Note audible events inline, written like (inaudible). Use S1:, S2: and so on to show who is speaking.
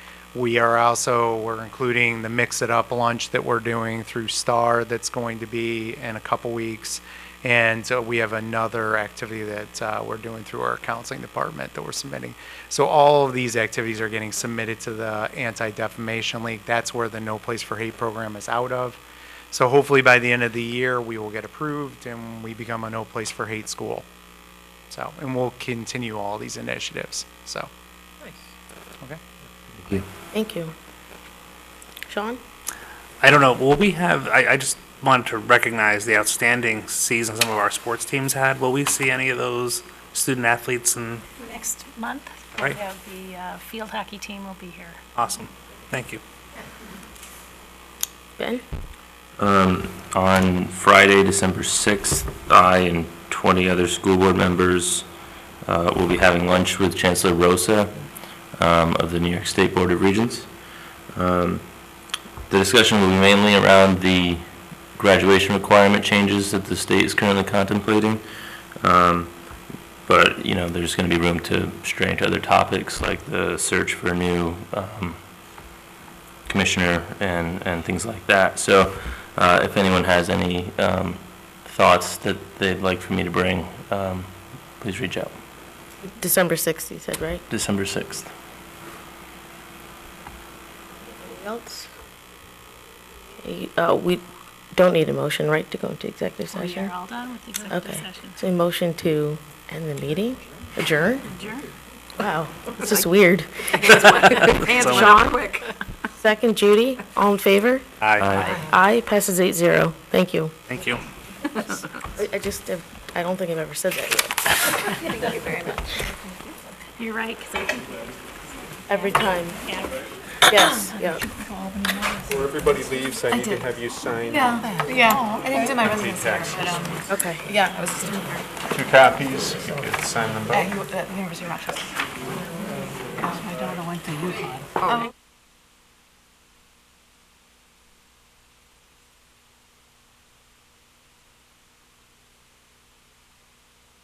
S1: We are also, we're including the Mix It Up lunch that we're doing through Star that's going to be in a couple weeks. And uh, we have another activity that uh, we're doing through our counseling department that we're submitting. So all of these activities are getting submitted to the Anti-Defamation League. That's where the No Place for Hate program is out of. So hopefully by the end of the year, we will get approved and we become a No Place for Hate school. So, and we'll continue all these initiatives, so. Okay.
S2: Thank you. Sean?
S3: I don't know. Will we have? I, I just wanted to recognize the outstanding season some of our sports teams had. Will we see any of those student athletes? And
S4: Next month,
S3: Right.
S4: we have the uh, field hockey team will be here.
S3: awesome. Thank you.
S2: Ben?
S5: Um, On Friday, December 6th, I and 20 other school board members uh, will be having lunch with Chancellor Rosa um, of the New York State Board of Regents. Um, The discussion will be mainly around the graduation requirement changes that the state is currently contemplating. Um, But, you know, there's going to be room to stray into other topics like the search for a new um, commissioner and, and things like that. So uh, if anyone has any um, thoughts that they'd like for me to bring, um, please reach out.
S2: December 6th, you said, right?
S5: December 6th.
S2: Anybody else? Okay, uh, We don't need a motion, right, to go into executive
S4: We are
S2: session?
S4: all done with executive
S2: Okay.
S4: session.
S2: So a motion to end the meeting? Adjourn?
S4: Adjourn.
S2: Wow, this is weird. (laughs)
S3: Hands
S2: quick. Second, Judy, all in favor? Aye, passes eight zero. Thank you.
S3: Thank you.
S2: I I just, have- I don't think I've ever said that yet.
S4: You're right, 'cause I think,
S2: Every time,
S4: yeah.
S2: yes, yeah.
S6: Before everybody leaves, I need to have you sign
S7: Yeah, I didn't do my residence here, but, um,
S2: Okay.
S7: yeah, I was just,
S6: two copies. You could sign them both.
S7: at the University of Rochester. Um, I don't know when to use mine. Oh.